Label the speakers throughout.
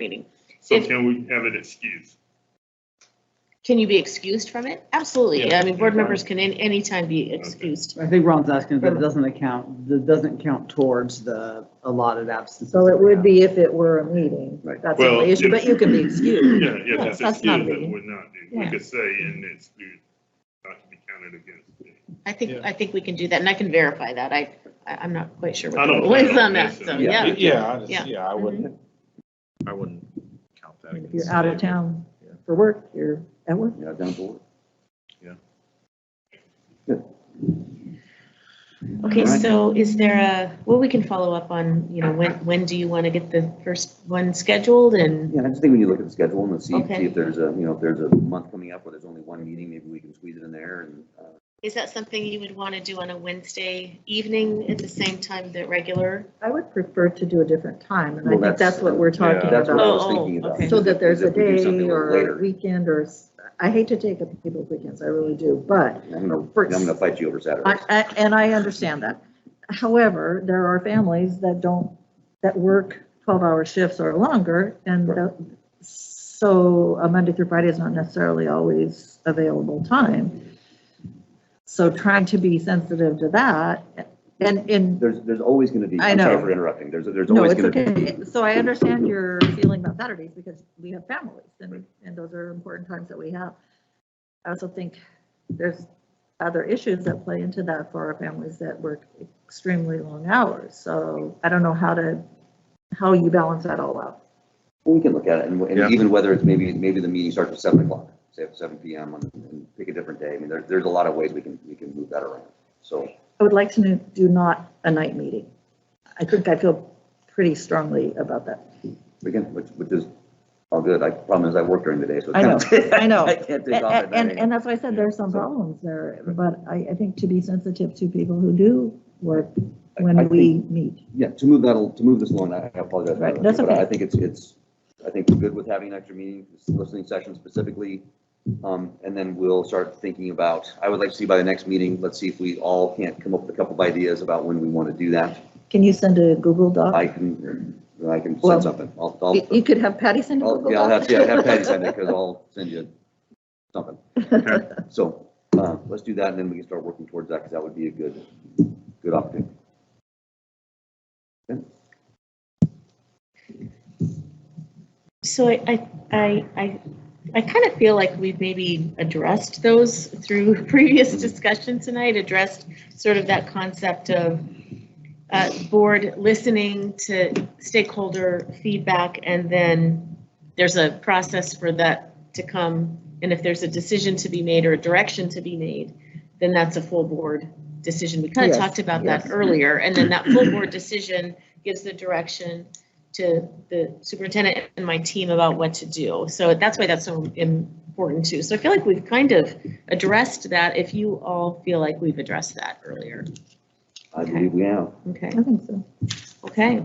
Speaker 1: meeting.
Speaker 2: So
Speaker 1: If-
Speaker 2: can we have it excused?
Speaker 1: Can you be excused from it? Absolutely.
Speaker 2: Yeah.
Speaker 1: I mean, board members can in any time be excused.
Speaker 3: I think Ron's asking if it doesn't account, that doesn't count towards the allotted absences.
Speaker 4: So it would be if it were a meeting.
Speaker 3: Right.
Speaker 4: That's the
Speaker 2: Well,
Speaker 4: only issue,
Speaker 2: yeah.
Speaker 4: but you can be excused.
Speaker 2: Yeah, if
Speaker 4: Yes,
Speaker 2: it's
Speaker 4: that's not
Speaker 2: excused, it
Speaker 4: being-
Speaker 2: would not do. We
Speaker 1: Yeah.
Speaker 2: could say and exclude, not to be counted against. it.
Speaker 1: I think,
Speaker 5: Yeah.
Speaker 1: I think we can do that and I can verify that. I, I- I'm not quite sure
Speaker 2: I
Speaker 1: what
Speaker 2: don't-
Speaker 1: the what is
Speaker 2: I
Speaker 1: on
Speaker 2: don't
Speaker 1: that,
Speaker 2: think
Speaker 1: so,
Speaker 2: so.
Speaker 1: Oh, yeah.
Speaker 5: Yeah, I
Speaker 1: Yeah. Mm-hmm.
Speaker 5: just, yeah, I wouldn't, I wouldn't count that
Speaker 4: If
Speaker 5: against.
Speaker 4: you're out of
Speaker 5: it.
Speaker 4: town for work, you're at work.
Speaker 6: Yeah, down to work.
Speaker 1: Okay,
Speaker 6: Alright.
Speaker 1: so is there a, well, we can follow up on, you know, when, when do you want to get the first one scheduled and,
Speaker 6: Yeah, I just think we need to look at the schedule and see,
Speaker 1: Okay.
Speaker 6: see if there's a, you know, if there's a month coming up where there's only one meeting, maybe we can squeeze it in there and, uh,
Speaker 1: is that something you would want to do on a Wednesday evening at the same time that regular?
Speaker 4: I would prefer to do a different time, and I
Speaker 6: Well,
Speaker 4: think
Speaker 6: that's-
Speaker 4: that's what we're talking
Speaker 6: that's what I
Speaker 4: about.
Speaker 6: was
Speaker 1: Oh,
Speaker 6: thinking about.
Speaker 1: okay.
Speaker 4: So that there's a
Speaker 6: If we do
Speaker 4: day
Speaker 6: something a little
Speaker 4: or
Speaker 6: later.
Speaker 4: a weekend or, s- I hate to take up people's weekends, I really do, but
Speaker 6: I'm gonna, I'm
Speaker 4: for-
Speaker 6: gonna fight you over Saturday.
Speaker 4: I, I- and I understand that. However, there are families that don't, that work 12-hour shifts or longer, and
Speaker 6: Right.
Speaker 4: the- so a Monday through Friday is not necessarily always available time. So trying to be sensitive to that, and, and,
Speaker 6: There's, there's always gonna be,
Speaker 4: I
Speaker 6: I'm sorry
Speaker 4: know.
Speaker 6: for interrupting, there's, there's
Speaker 4: no,
Speaker 6: always
Speaker 4: it's
Speaker 6: gonna be.
Speaker 4: okay. So I understand your feeling about Saturdays, because we have families, and, and those are important times that we have. I also think there's other issues that play into that for our families that work extremely long hours. So I don't know how to, how you balance that all out.
Speaker 6: We can look at it and,
Speaker 5: Yeah.
Speaker 6: and even whether it's maybe, maybe the meeting starts at seven o'clock, say at seven P M and, and pick a different day. I mean, there, there's a lot of ways we can, we can move that around. So,
Speaker 4: I would like to no- do not a night meeting. I think I feel pretty strongly about that.
Speaker 6: again, which, which is all good. I, problem is I work during the day, so.
Speaker 4: I know, I know.
Speaker 6: I can't take off at
Speaker 4: And,
Speaker 6: nine
Speaker 4: and, and
Speaker 6: AM.
Speaker 4: that's why I said there's some
Speaker 6: So-
Speaker 4: problems there, but I, I think to be sensitive to people who do work
Speaker 6: I
Speaker 4: when
Speaker 6: think-
Speaker 4: we meet.
Speaker 6: Yeah, to move that, to move this along, I I apologize. for
Speaker 4: Right,
Speaker 6: that,
Speaker 4: that's
Speaker 6: but I
Speaker 4: okay.
Speaker 6: think it's, it's, I think we're good with having an extra meeting, this listening session specifically. Um, and then we'll start thinking about, I would like to see by the next meeting, let's see if we all can't come up with a couple of ideas about when we want to do that.
Speaker 4: Can you send a Google
Speaker 6: I
Speaker 4: Doc?
Speaker 6: can, I can
Speaker 4: Well,
Speaker 6: send something. I'll,
Speaker 4: You
Speaker 6: I'll,
Speaker 4: you could have Patty send a
Speaker 6: I'll,
Speaker 4: Google
Speaker 6: Oh, yeah, I'll have,
Speaker 4: Doc.
Speaker 6: yeah, have Patty send it, because I'll send you something. So, uh, let's do that, and then we can start working towards that, because that would be a good, good opportunity.
Speaker 1: So I, I, I, I, I kind of feel like we've maybe addressed those through previous discussion tonight, addressed sort of that concept of uh, board listening to stakeholder feedback, and then there's a process for that to come. And if there's a decision to be made or a direction to be made, then that's a full board decision. We kind of
Speaker 4: Yes,
Speaker 1: talked about that
Speaker 4: yes.
Speaker 1: earlier, and then that full board decision gives the direction to the superintendent and my team about what to do. So that's why that's so important too. So I feel like we've kind of addressed that, if you all feel like we've addressed that earlier.
Speaker 6: I believe we have.
Speaker 1: Okay,
Speaker 4: I think so.
Speaker 1: okay.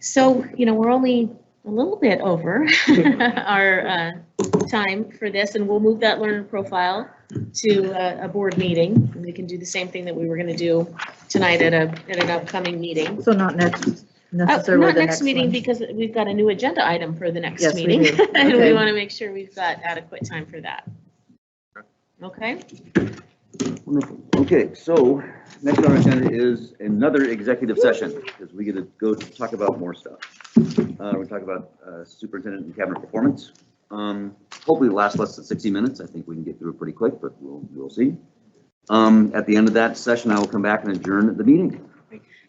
Speaker 1: So, you know, we're only a little bit over our uh, time for this, and we'll move that learner profile to uh, a board meeting. And we can do the same thing that we were going to do tonight at a, at an upcoming meeting.
Speaker 4: So not next,
Speaker 1: Uh,
Speaker 4: necessarily
Speaker 1: Not
Speaker 4: the
Speaker 1: next
Speaker 4: next
Speaker 1: meeting,
Speaker 4: one.
Speaker 1: because we've got a new agenda item for the next
Speaker 4: Yes, we
Speaker 1: meeting.
Speaker 4: do.
Speaker 1: And we
Speaker 4: Okay.
Speaker 1: want to make sure we've got adequate time for that. Okay,
Speaker 6: Wonderful. Okay, so next on our agenda is another executive session, because we get to go to talk about more stuff. Uh, we talk about uh, superintendent and cabinet performance. Um, hopefully it lasts less than sixty minutes. I think we can get through it pretty quick, but we'll, we'll see. Um, at the end of that session, I will come back and adjourn the meeting.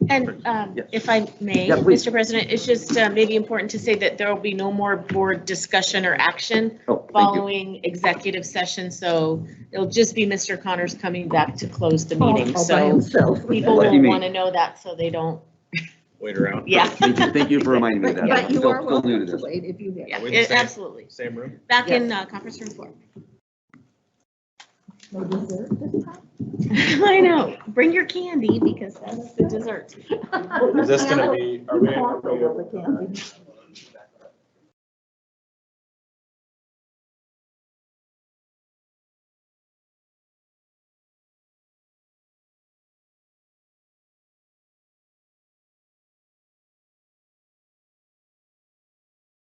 Speaker 1: and um,
Speaker 6: Yes.
Speaker 1: if I may,
Speaker 6: Yeah, please.
Speaker 1: Mr. President, it's just uh, maybe important to say that there will be no more board discussion or action
Speaker 6: Oh, thank you.
Speaker 1: following executive session, so it'll just be Mr. Connors coming back to close the meeting,
Speaker 4: All Oh, by
Speaker 1: so
Speaker 4: himself.
Speaker 1: people
Speaker 6: What do you
Speaker 1: will
Speaker 6: mean?
Speaker 1: want to know that, so they don't,
Speaker 5: Wait around.
Speaker 1: yeah.
Speaker 6: Thank you, thank you for reminding me of that.
Speaker 4: But
Speaker 6: I'm
Speaker 4: you
Speaker 6: still-
Speaker 4: are
Speaker 6: still new
Speaker 4: welcome
Speaker 6: to
Speaker 4: to
Speaker 6: this.
Speaker 4: wait if you wish.
Speaker 1: Yeah,
Speaker 5: Wait a
Speaker 1: it-
Speaker 5: second.
Speaker 1: absolutely.
Speaker 5: Same room?
Speaker 1: Back in uh, conference room four.
Speaker 4: No dessert this time?
Speaker 1: I know. Bring your candy because that's the dessert.
Speaker 5: Is this gonna be, are we, are we-
Speaker 4: All the candy.